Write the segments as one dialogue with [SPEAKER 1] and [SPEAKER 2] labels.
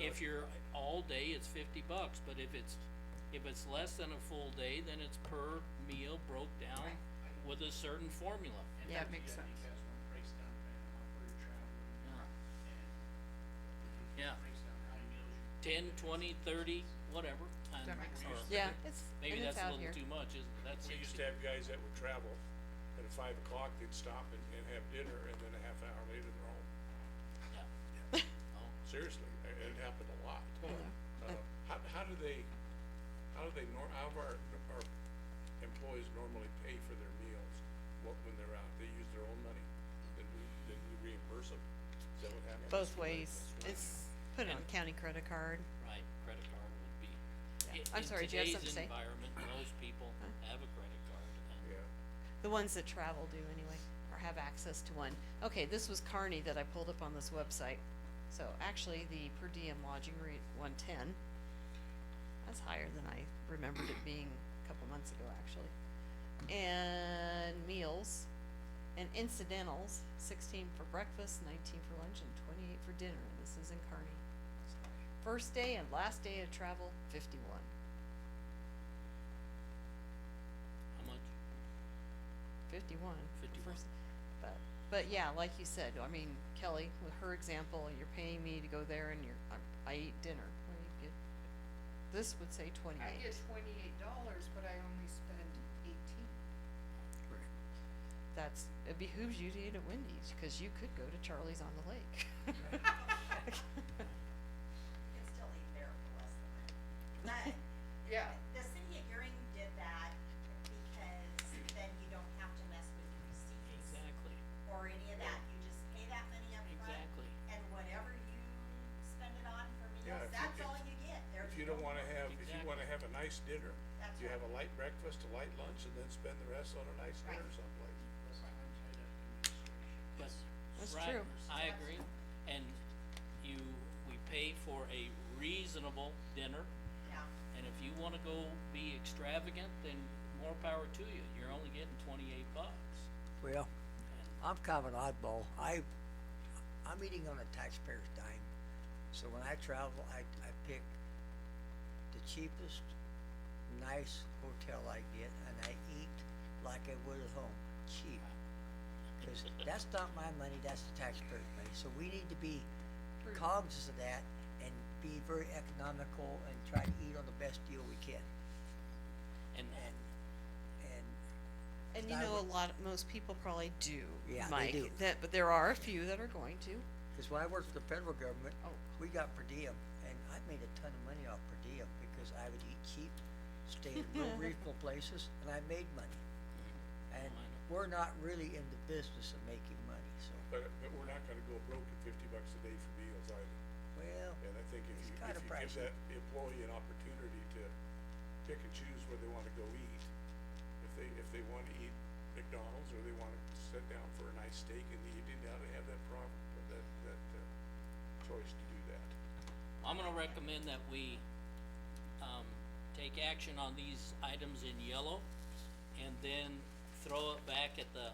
[SPEAKER 1] if you're all day, it's fifty bucks, but if it's, if it's less than a full day, then it's per meal broke down
[SPEAKER 2] Right.
[SPEAKER 1] with a certain formula.
[SPEAKER 2] Yeah, it makes sense.
[SPEAKER 3] Because when it breaks down, depending on where you're traveling and
[SPEAKER 1] Yeah,
[SPEAKER 3] it breaks down how many meals you
[SPEAKER 1] ten, twenty, thirty, whatever, times,
[SPEAKER 2] That makes
[SPEAKER 1] or
[SPEAKER 2] sense.
[SPEAKER 4] Yeah, it's, and
[SPEAKER 1] maybe
[SPEAKER 4] it's
[SPEAKER 1] that's a
[SPEAKER 4] out
[SPEAKER 1] little
[SPEAKER 4] here.
[SPEAKER 1] too much, isn't it? That's
[SPEAKER 5] We used
[SPEAKER 1] sixty.
[SPEAKER 5] to have guys that would travel, and at five o'clock, they'd stop and, and have dinner, and then a half hour later, they're home.
[SPEAKER 1] Yeah. Oh,
[SPEAKER 5] Seriously, it, it happened a lot. Uh, how, how do they, how do they nor, how do our, our employees normally pay for their meals? What, when they're out, they use their own money, then we, then we reimburse them, is that what happens?
[SPEAKER 4] Both ways. It's put it on
[SPEAKER 1] And-
[SPEAKER 4] county credit card.
[SPEAKER 1] right, credit card would be,
[SPEAKER 4] Yeah.
[SPEAKER 1] in,
[SPEAKER 4] I'm
[SPEAKER 1] in
[SPEAKER 4] sorry, do you have
[SPEAKER 1] today's
[SPEAKER 4] something to say?
[SPEAKER 1] environment, most people have a credit card and,
[SPEAKER 5] Yeah,
[SPEAKER 4] The ones that travel do anyway, or have access to one. Okay, this was Carney that I pulled up on this website. So actually, the per diem lodging rate, one ten. That's higher than I remembered it being a couple months ago, actually. And meals and incidentals, sixteen for breakfast, nineteen for lunch, and twenty-eight for dinner, and this is in Kearney. First day and last day of travel, fifty-one.
[SPEAKER 1] how much?
[SPEAKER 4] 51.
[SPEAKER 1] 51.
[SPEAKER 4] First- But, but yeah, like you said, I mean, Kelly, with her example, you're paying me to go there and you're, I- I eat dinner. Well, you get- This would say
[SPEAKER 2] I get
[SPEAKER 4] twenty-eight.
[SPEAKER 2] twenty-eight dollars, but I only spend eighteen.
[SPEAKER 4] That's, it behooves you to eat at Wendy's, cause you could go to Charlie's on the Lake.
[SPEAKER 6] You can still eat there for less than that. But
[SPEAKER 2] Yeah,
[SPEAKER 6] the city of Gearing did that because then you don't have to mess with your receipts
[SPEAKER 1] Exactly,
[SPEAKER 6] or any of that. You just pay that money up front
[SPEAKER 1] exactly.
[SPEAKER 6] and whatever you spend it on for
[SPEAKER 5] Yeah, if
[SPEAKER 6] meals,
[SPEAKER 5] you-
[SPEAKER 6] that's
[SPEAKER 5] if-
[SPEAKER 6] all you get. There's
[SPEAKER 5] if you don't
[SPEAKER 6] no-
[SPEAKER 5] wanna have, if you
[SPEAKER 1] Exactly.
[SPEAKER 5] wanna have a nice dinner,
[SPEAKER 6] That's
[SPEAKER 5] you
[SPEAKER 6] right.
[SPEAKER 5] have a light breakfast, a light lunch, and then spend the rest on a nice dinner
[SPEAKER 6] Right.
[SPEAKER 5] someplace.
[SPEAKER 3] listen, I'm tied up in administration.
[SPEAKER 1] But,
[SPEAKER 4] That's
[SPEAKER 1] right,
[SPEAKER 4] true.
[SPEAKER 1] I agree, and you, we pay for a reasonable dinner,
[SPEAKER 6] Yeah,
[SPEAKER 1] and if you wanna go be extravagant, then more power to you, you're only getting twenty-eight bucks.
[SPEAKER 7] Well, I'm kind of an oddball. I, I'm eating on a taxpayer's dime. So when I travel, I, I pick the cheapest, nice hotel I get and I eat like I would at home, cheap. Cause that's not my money, that's the taxpayer's money. So we need to be cognizant of that and be very economical and try to eat on the best deal we can.
[SPEAKER 1] And,
[SPEAKER 7] And, and
[SPEAKER 4] And you
[SPEAKER 7] I
[SPEAKER 4] know, a
[SPEAKER 7] would-
[SPEAKER 4] lot, most people probably do,
[SPEAKER 7] Yeah, they
[SPEAKER 4] Mike,
[SPEAKER 7] do.
[SPEAKER 4] that, but there are a few that are going to.
[SPEAKER 7] Because when I worked for the federal government,
[SPEAKER 4] Oh.
[SPEAKER 7] we got per diem, and I made a ton of money off per diem because I would eat cheap, stay in real reasonable places, and I made money. And
[SPEAKER 1] Well, I know.
[SPEAKER 7] we're not really in the business of making money, so,
[SPEAKER 5] But, but we're not gonna go broke at fifty bucks a day for meals either.
[SPEAKER 7] well,
[SPEAKER 5] And I think if
[SPEAKER 7] It's
[SPEAKER 5] you, if
[SPEAKER 7] kinda
[SPEAKER 5] you give
[SPEAKER 7] pricey.
[SPEAKER 5] that employee an opportunity to pick and choose where they wanna go eat, if they, if they wanna eat McDonald's or they wanna sit down for a nice steak and you didn't have to have that problem, that, that, uh, choice to do that.
[SPEAKER 1] I'm gonna recommend that we, um, take action on these items in yellow, and then throw it back at the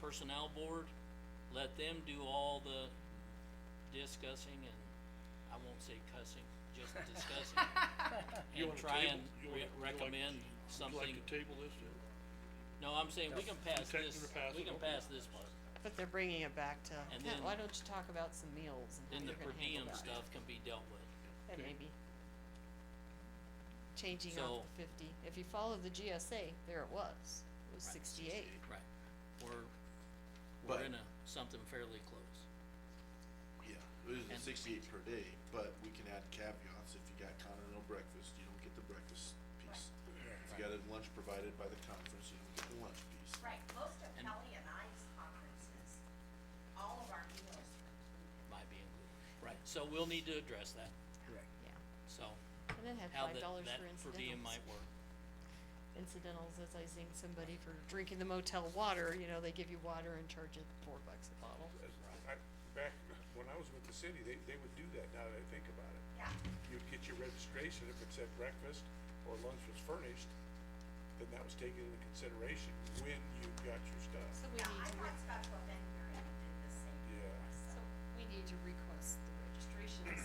[SPEAKER 1] personnel board, let them do all the discussing and, I won't say cussing, just discussing.
[SPEAKER 8] You
[SPEAKER 1] And
[SPEAKER 8] wanna
[SPEAKER 1] try
[SPEAKER 8] table-
[SPEAKER 1] and
[SPEAKER 8] you
[SPEAKER 1] re-
[SPEAKER 8] wanna- you like-
[SPEAKER 1] recommend
[SPEAKER 8] Would you
[SPEAKER 1] something,
[SPEAKER 8] like to table this then?
[SPEAKER 1] no, I'm saying we can pass
[SPEAKER 8] Take-
[SPEAKER 1] this,
[SPEAKER 8] pass
[SPEAKER 1] we
[SPEAKER 8] it,
[SPEAKER 1] can
[SPEAKER 8] okay.
[SPEAKER 1] pass this one,
[SPEAKER 4] But they're bringing it back to,
[SPEAKER 1] And
[SPEAKER 4] "Huh,
[SPEAKER 1] then-
[SPEAKER 4] why don't you talk about some meals
[SPEAKER 1] then
[SPEAKER 4] and
[SPEAKER 1] the
[SPEAKER 4] how
[SPEAKER 1] per
[SPEAKER 4] you're gonna handle
[SPEAKER 1] diem
[SPEAKER 4] that?
[SPEAKER 1] stuff can be dealt with,
[SPEAKER 4] That
[SPEAKER 8] Okay.
[SPEAKER 4] may be changing
[SPEAKER 1] So-
[SPEAKER 4] off the fifty. If you follow the GSA, there it was. It was sixty-eight.
[SPEAKER 1] right? We're,
[SPEAKER 9] But-
[SPEAKER 1] we're in a, something fairly close,
[SPEAKER 9] Yeah, it is
[SPEAKER 1] And-
[SPEAKER 9] sixty-eight per day, but we can add caveats, if you got continental breakfast, you don't get the breakfast piece. If you got a lunch provided by the conference, you don't get the lunch piece.
[SPEAKER 6] right. Most of
[SPEAKER 1] And-
[SPEAKER 6] Kelly and I's conferences, all of our meals
[SPEAKER 1] might be included, right? So we'll need to address that,
[SPEAKER 7] correct.
[SPEAKER 4] Yeah.
[SPEAKER 1] so,
[SPEAKER 4] And then had
[SPEAKER 1] how
[SPEAKER 4] five
[SPEAKER 1] that,
[SPEAKER 4] dollars
[SPEAKER 1] that
[SPEAKER 4] for
[SPEAKER 1] per diem
[SPEAKER 4] incidentals.
[SPEAKER 1] might work,
[SPEAKER 4] Incidentals, as I seen somebody for drinking the motel water, you know, they give you water and charge it four bucks a bottle.
[SPEAKER 5] I, back, when I was with the city, they, they would do that now that I think about it.
[SPEAKER 6] Yeah.
[SPEAKER 5] You'd get your registration, if it said breakfast or lunch was furnished, then that was taken into consideration when you got your stuff.
[SPEAKER 4] So we
[SPEAKER 6] Yeah, I
[SPEAKER 4] need to,
[SPEAKER 6] thought Scottsville Bend Gearing did the same.
[SPEAKER 5] Yeah.
[SPEAKER 6] So
[SPEAKER 4] we need to request